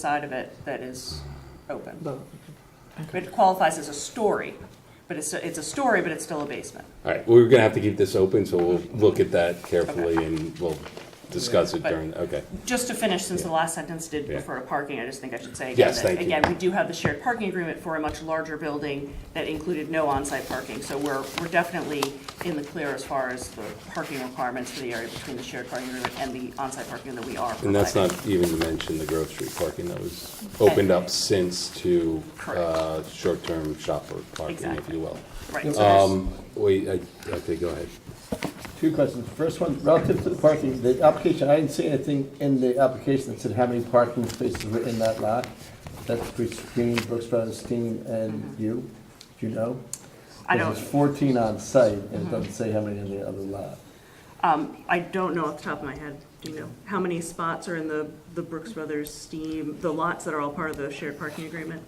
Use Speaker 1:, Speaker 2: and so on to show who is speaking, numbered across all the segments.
Speaker 1: side of it that is open.
Speaker 2: But-
Speaker 1: It qualifies as a story, but it's, it's a story, but it's still a basement.
Speaker 3: All right, we're gonna have to keep this open, so we'll look at that carefully and we'll discuss it
Speaker 1: But-
Speaker 3: during, okay.
Speaker 1: Just to finish, since the last sentence did
Speaker 3: Yeah.
Speaker 1: refer to parking, I just think I should say again
Speaker 3: Yes,
Speaker 1: that,
Speaker 3: thank you.
Speaker 1: again, we do have the shared parking agreement for a much larger building that included no on-site parking, so we're, we're definitely in the clear as far as the parking requirements for the area between the shared parking agreement and the on-site parking that we are providing.
Speaker 3: And that's not even to mention the Grove Street parking that was opened up since to, uh, short-term shopper parking, if
Speaker 1: Exactly.
Speaker 3: you will.
Speaker 1: Right, so there's-
Speaker 3: Um, wait, I, okay, go ahead.
Speaker 2: Two questions. First one, relative to the parking, the application, I didn't see anything in the application that said how many parking spaces were in that lot. That's between Brooks Brothers, Steen, and you, do you know?
Speaker 1: Mm-hmm. I
Speaker 2: Because
Speaker 1: don't-
Speaker 2: It's fourteen on site, and it doesn't say how many in the other lot.
Speaker 1: Um, I don't know off the top of my head, do you know, how many spots are in the, the Brooks Brothers steam, the lots that are all part of the shared parking agreement?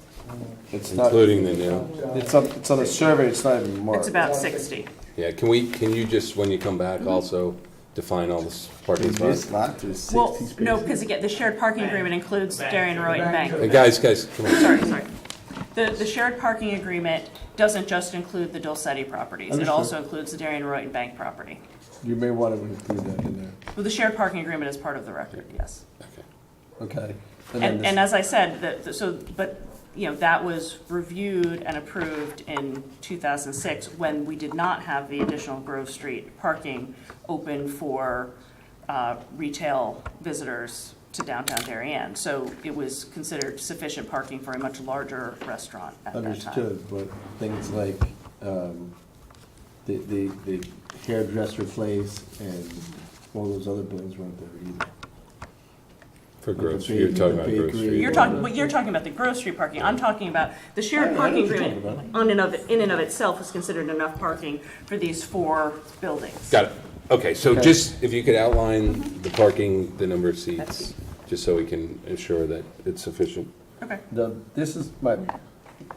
Speaker 2: It's not,
Speaker 3: Including the new,
Speaker 2: it's on, it's on a survey, it's not even marked.
Speaker 1: It's about sixty.
Speaker 3: yeah, can we, can you just, when you come
Speaker 1: Mm-hmm.
Speaker 3: back, also define all this parking
Speaker 2: In
Speaker 3: spots?
Speaker 2: This lot, there's
Speaker 1: Well,
Speaker 2: sixty spaces.
Speaker 1: no, because again, the shared parking agreement includes Darien Road and
Speaker 3: Hey,
Speaker 1: Bank.
Speaker 3: Uh, guys, guys, come on.
Speaker 1: Sorry, sorry. The, the shared parking agreement doesn't just include the Dulcetti properties, it
Speaker 2: Understood.
Speaker 1: also includes the Darien Road and Bank property.
Speaker 2: You may want to include that in there,
Speaker 1: Well, the shared parking agreement is part of the record, yes.
Speaker 3: Okay.
Speaker 2: okay? then
Speaker 1: And,
Speaker 2: this-
Speaker 1: and as I said, the- the, so, but, you know, that was reviewed and approved in 2006 when we did not have the additional Grove Street parking open for uh, retail visitors to downtown Darien. So it was considered sufficient parking for a much larger restaurant at that time.
Speaker 2: Understood, but things like um, the the the hairdresser place and all those other buildings weren't there either.
Speaker 3: For
Speaker 2: Like the
Speaker 3: Grove Street, you're
Speaker 2: ba-
Speaker 3: talking
Speaker 2: the
Speaker 3: about Grove
Speaker 2: bakery.
Speaker 3: Street.
Speaker 1: You're talking, but you're talking about the Grove Street parking, I'm talking about, the shared
Speaker 2: I know what
Speaker 1: parking
Speaker 2: you're talking
Speaker 1: agreement on and of, in and of itself is considered enough parking for these four buildings.
Speaker 3: Got it. Okay, so
Speaker 2: Okay.
Speaker 3: just, if you could outline the parking, the number of seats, just so we can ensure that it's sufficient.
Speaker 1: Okay.
Speaker 2: The, this is my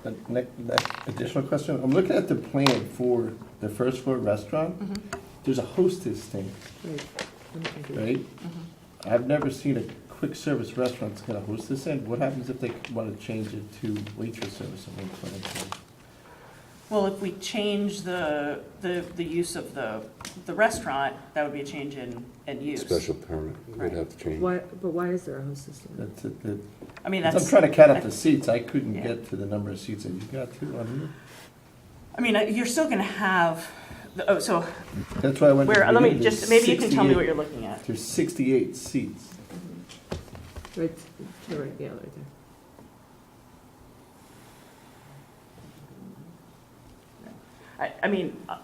Speaker 2: the ne- next additional question. I'm looking at the plan for the first floor restaurant.
Speaker 1: Mm-hmm.
Speaker 2: There's a hostess thing, right?
Speaker 1: Mm-hmm.
Speaker 2: I've never seen a quick service restaurant that's got a hostess in. What happens if they want to change it to waitress service at one point in time?
Speaker 1: Well, if we change the, the, the use of the, the restaurant, that would be a change in, in use.
Speaker 3: Special permit, we'd
Speaker 1: Right.
Speaker 3: have to change.
Speaker 4: Why, but why is there a hostess limit?
Speaker 2: That's it, the-
Speaker 1: I mean,
Speaker 2: I'm
Speaker 1: that's,
Speaker 2: trying to count up the seats, I couldn't
Speaker 1: Yeah.
Speaker 2: get to the number of seats that you got to on
Speaker 1: I mean, uh, you're still gonna have, the- oh, so,
Speaker 2: here. That's why I went. to
Speaker 1: where, uh, let me
Speaker 2: the-
Speaker 1: just, maybe you can tell me what
Speaker 2: 68
Speaker 1: you're looking at.
Speaker 2: There's sixty-eight seats.
Speaker 4: Mm-hmm. Right, you're right, yeah, right there.
Speaker 1: I, I mean, uh,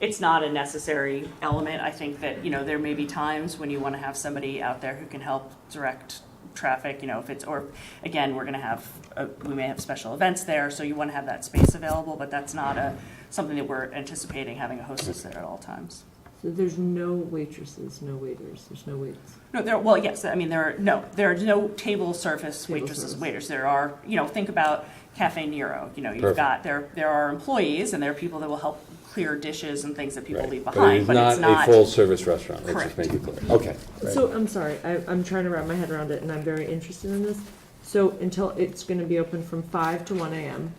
Speaker 1: it's not a necessary element. I think that, you know, there may be times when you want to have somebody out there who can help direct traffic, you know, if it's, or, again, we're going to have, uh, we may have special events there, so you want to have that space available, but that's not a, something that we're anticipating having a hostess there at all times.
Speaker 4: So there's no waitresses, no waiters, there's no waits.
Speaker 1: No, there, well, yes, I mean, there are, no, there are no table service
Speaker 4: Table
Speaker 1: waitresses,
Speaker 4: service.
Speaker 1: waiters. There are, you know, think about Cafe Nero, you know, you've
Speaker 3: Perfect.
Speaker 1: got, there, there are employees and there are people that will help clear dishes and things that people
Speaker 3: Right.
Speaker 1: leave
Speaker 3: But it
Speaker 1: behind,
Speaker 3: is
Speaker 1: but it's
Speaker 3: not a
Speaker 1: not.
Speaker 3: full-service restaurant, let's just
Speaker 1: Correct.
Speaker 3: make it clear. Okay,
Speaker 4: So, I'm sorry, I, I'm trying to wrap my head around it, and I'm very interested in this. So until, it's gonna be open from five to one AM.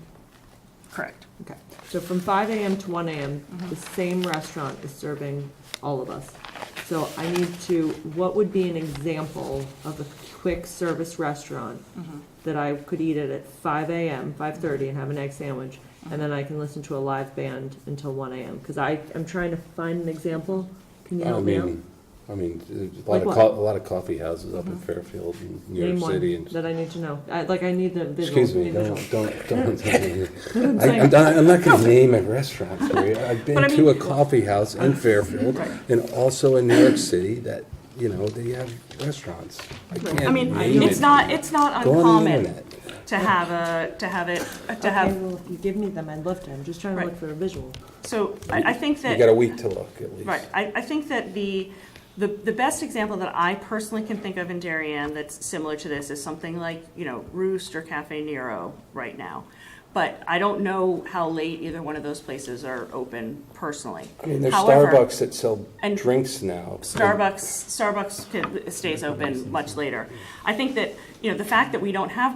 Speaker 1: Correct.
Speaker 4: Okay. So from five AM to one AM,
Speaker 1: Mm-hmm.
Speaker 4: the same restaurant is serving all of us. So I need to, what would be an example of a quick service restaurant
Speaker 1: Mm-hmm.
Speaker 4: that I could eat at at five AM, five thirty, and have an egg sandwich, and then I can listen to a live band until one AM? Because I, I'm trying to find an example. Can you
Speaker 3: I
Speaker 4: help me out?
Speaker 3: mean, I mean, there's a lot
Speaker 4: Like
Speaker 3: of,
Speaker 4: what?
Speaker 3: co- a lot of coffee houses up in Fairfield and New
Speaker 4: Name
Speaker 3: York City
Speaker 4: one
Speaker 3: and.
Speaker 4: that I need to know. I, like, I need the visual.
Speaker 3: Excuse me,
Speaker 4: need visual.
Speaker 3: don't, don't, don't.
Speaker 4: I'm
Speaker 3: I-
Speaker 4: saying-
Speaker 3: I'm not, I'm not gonna name a restaurant for you. I've
Speaker 1: But I
Speaker 3: been to a
Speaker 1: mean-
Speaker 3: coffee house in Fairfield and also in New York City that, you know, they have restaurants. I can't
Speaker 1: I mean,
Speaker 3: name
Speaker 1: it's
Speaker 3: it.
Speaker 1: not, it's not
Speaker 3: Go on the
Speaker 1: uncommon
Speaker 3: internet.
Speaker 1: to have a, to have it, to
Speaker 4: Okay,
Speaker 1: have,
Speaker 4: well, if you give me them, I'd love to. I'm just trying to
Speaker 1: Right.
Speaker 4: look for a visual.
Speaker 1: so I, I think that.
Speaker 3: You got a week to look at least.
Speaker 1: Right, I, I think that the, the, the best example that I personally can think of in Darien that's similar to this is something like, you know, Roost or Cafe Nero right now, But I don't know how late either one of those places are open personally.
Speaker 5: I mean, there's
Speaker 1: However,
Speaker 5: Starbucks that sell
Speaker 1: And-
Speaker 5: drinks now.
Speaker 1: Starbucks, Starbucks could- stays open much later. I think that, you know, the fact that we don't have one.